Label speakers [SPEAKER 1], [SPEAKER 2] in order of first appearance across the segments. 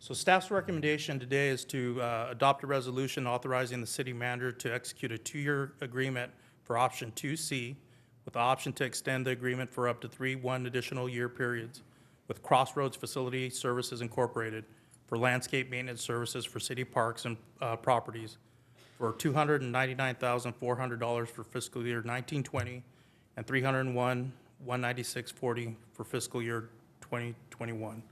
[SPEAKER 1] So staff's recommendation today is to uh, adopt a resolution authorizing the city manager to execute a two-year agreement for option 2C with the option to extend the agreement for up to three one additional year periods with Crossroads Facility Services Incorporated for landscape maintenance services for city parks and uh, properties for $299,400 for fiscal year 1920 and 301, 196.40 for fiscal year 2021.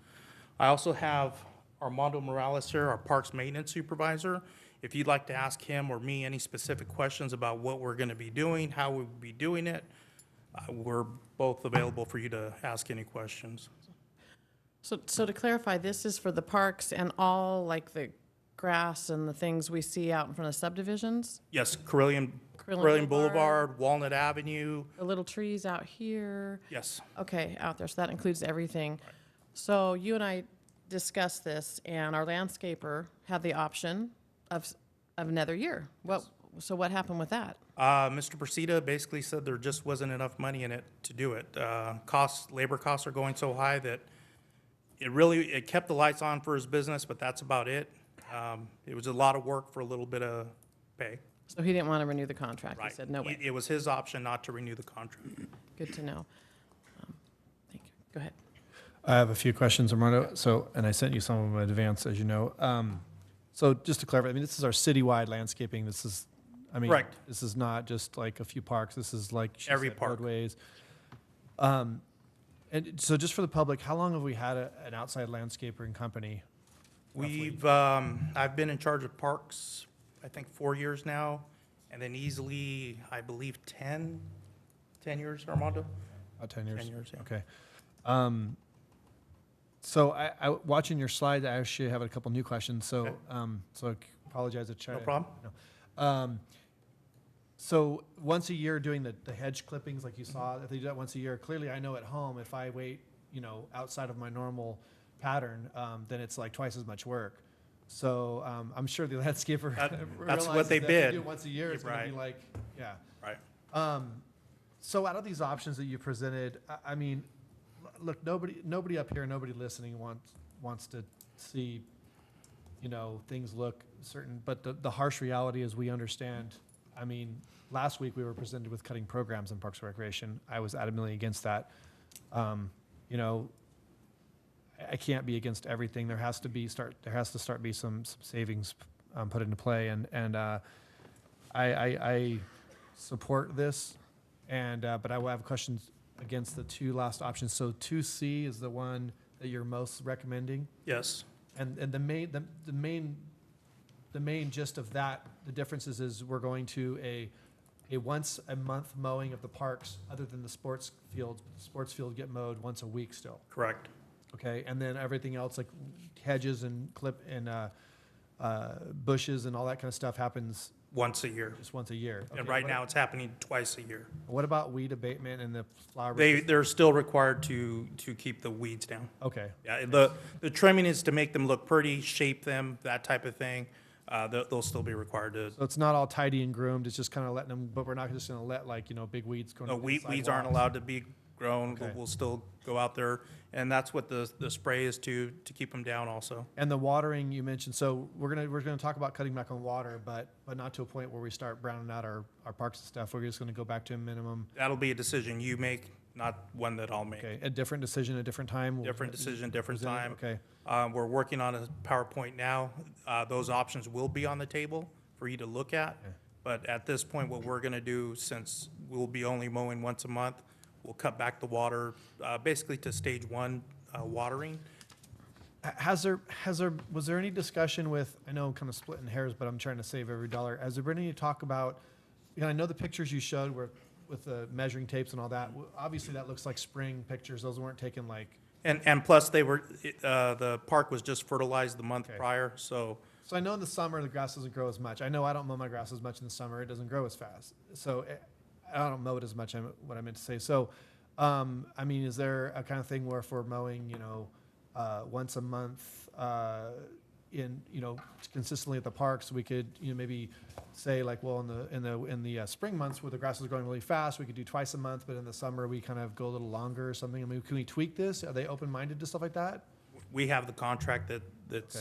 [SPEAKER 1] I also have Armando Morales here, our Parks Maintenance Supervisor. If you'd like to ask him or me any specific questions about what we're going to be doing, how we'll be doing it, uh, we're both available for you to ask any questions.
[SPEAKER 2] So, so to clarify, this is for the parks and all like the grass and the things we see out in front of subdivisions?
[SPEAKER 1] Yes, Carillion,
[SPEAKER 2] Carilion
[SPEAKER 1] Carillion Boulevard,
[SPEAKER 2] Boulevard.
[SPEAKER 1] Walnut Avenue,
[SPEAKER 2] The little trees out here?
[SPEAKER 1] yes.
[SPEAKER 2] Okay, out there, so that includes everything. So you and I discussed this and our landscaper had the option of, s- of another year. What, so what happened with that?
[SPEAKER 1] Uh, Mr. Persida basically said there just wasn't enough money in it to do it. Uh, costs, labor costs are going so high that it really, it kept the lights on for his business, but that's about it. Um, it was a lot of work for a little bit of pay.
[SPEAKER 2] So he didn't want to renew the contract. He
[SPEAKER 1] Right.
[SPEAKER 2] said, no way.
[SPEAKER 1] It- It was his option not to renew the contract.
[SPEAKER 2] Good to know. Um, Thank you. Go ahead.
[SPEAKER 3] I have a few questions, Armando. So, and I sent you some of them in advance, as you know. Um, so just to clarify, I mean, this is our citywide landscaping. This is, I mean,
[SPEAKER 1] Correct.
[SPEAKER 3] this is not just like a few parks. This is like she
[SPEAKER 1] Every
[SPEAKER 3] said,
[SPEAKER 1] park.
[SPEAKER 3] roadways. Um, and so just for the public, how long have we had a, an outside landscaper and company?
[SPEAKER 1] We've, um, I've been in charge of parks, I think, four years now, and then easily, I believe, 10, 10 years, Armando?
[SPEAKER 3] About 10 years?
[SPEAKER 1] 10 years, yeah.
[SPEAKER 3] Okay. Um, so I, I, watching your slides, I actually have a couple new questions. So,
[SPEAKER 1] Okay.
[SPEAKER 3] um, so I apologize if I.
[SPEAKER 1] No problem.
[SPEAKER 3] Um, so once a year doing the, the hedge clippings like you
[SPEAKER 1] Mm-hmm.
[SPEAKER 3] saw, if they do that once a year, clearly I know at home if I wait, you know, outside of my normal pattern, um, then it's like twice as much work. So um, I'm sure the landscaper
[SPEAKER 1] That- that's what
[SPEAKER 3] realizes
[SPEAKER 1] they
[SPEAKER 3] that if
[SPEAKER 1] bid.
[SPEAKER 3] do it once a year, it's going to
[SPEAKER 1] Right.
[SPEAKER 3] be like, yeah.
[SPEAKER 1] Right.
[SPEAKER 3] Um, so out of these options that you presented, I, I mean, l- look, nobody, nobody up here, nobody listening wants, wants to see, you know, things look certain, but the, the harsh reality is we understand. I mean, last week we were presented with cutting programs in Parks and Recreation. I was adamantly against that. Um, you know, I, I can't be against everything. There has to be start, there has to start be some, some savings, um, put into play and, and, uh, I, I, I support this, and, uh, but I will have questions against the two last options. So two C is the one that you're most recommending,
[SPEAKER 1] Yes.
[SPEAKER 3] and, and the main, the, the main, the main gist of that, the differences is we're going to a, a once a month mowing of the parks, other than the sports fields, sports field get mowed once a week still.
[SPEAKER 1] Correct.
[SPEAKER 3] Okay, and then everything else like hedges and clip and, uh, uh, bushes and all that kind of stuff happens
[SPEAKER 1] Once a year.
[SPEAKER 3] just once a year.
[SPEAKER 1] And
[SPEAKER 3] Okay,
[SPEAKER 1] right
[SPEAKER 3] what-
[SPEAKER 1] now, it's happening twice a year.
[SPEAKER 3] What about weed abatement and the flower?
[SPEAKER 1] They, they're still required to, to keep the weeds down.
[SPEAKER 3] Okay,
[SPEAKER 1] Yeah, the, the trimming is to make them look pretty, shape them, that type of thing. Uh, they'll, they'll still be required to,
[SPEAKER 3] so it's not all tidy and groomed, it's just kind of letting them, but we're not just gonna let like, you know, big weeds go.
[SPEAKER 1] no,
[SPEAKER 3] into the
[SPEAKER 1] weed, uh, weeds aren't
[SPEAKER 3] sidewalks.
[SPEAKER 1] allowed to be grown. We'll-
[SPEAKER 3] Okay.
[SPEAKER 1] We'll still go out there, and that's what the, the spray is to, to keep them down also.
[SPEAKER 3] And the watering you mentioned, so we're gonna, we're gonna talk about cutting back on water, but, but not to a point where we start browning out our, our parks and stuff. We're just gonna go back to a minimum.
[SPEAKER 1] That'll be a decision you make, not one that I'll make.
[SPEAKER 3] Okay, a different decision, a different time. we'll-
[SPEAKER 1] Different decision, different
[SPEAKER 3] present it,
[SPEAKER 1] time.
[SPEAKER 3] Okay,
[SPEAKER 1] Uh, We're working on a PowerPoint now. Uh, Those options will be on the table for you to look at. But at this point, what we're going to do, since we'll be only mowing once a month, we'll cut back the water, uh, basically to stage one uh, watering.
[SPEAKER 3] Ha- has there, has there, was there any discussion with, I know I'm kind of splitting hairs, but I'm trying to save every dollar. Has there been any talk about, you know, I know the pictures you showed were with the measuring tapes and all that. W- Obviously, that looks like spring pictures. Those weren't taken like,
[SPEAKER 1] And, and plus, they were, it, uh, the park was just fertilized the month
[SPEAKER 3] Okay.
[SPEAKER 1] prior, so,
[SPEAKER 3] so I know in the summer, the grass doesn't grow as much. I know I don't mow my grass as much in the summer. It doesn't grow as fast. So eh, I don't mow it as much, I'm- what I meant to say. So, um, I mean, is there a kind of thing where if we're mowing, you know, uh, once a month, uh, in, you know, consistently at the parks, we could, you know, maybe say like, well, in the, in the, in the uh, spring months where the grass is growing really fast, we could do twice a month, but in the summer, we kind of go a little longer or something. I mean, can we tweak this? Are they open-minded to stuff like that?
[SPEAKER 1] we have the contract that, that's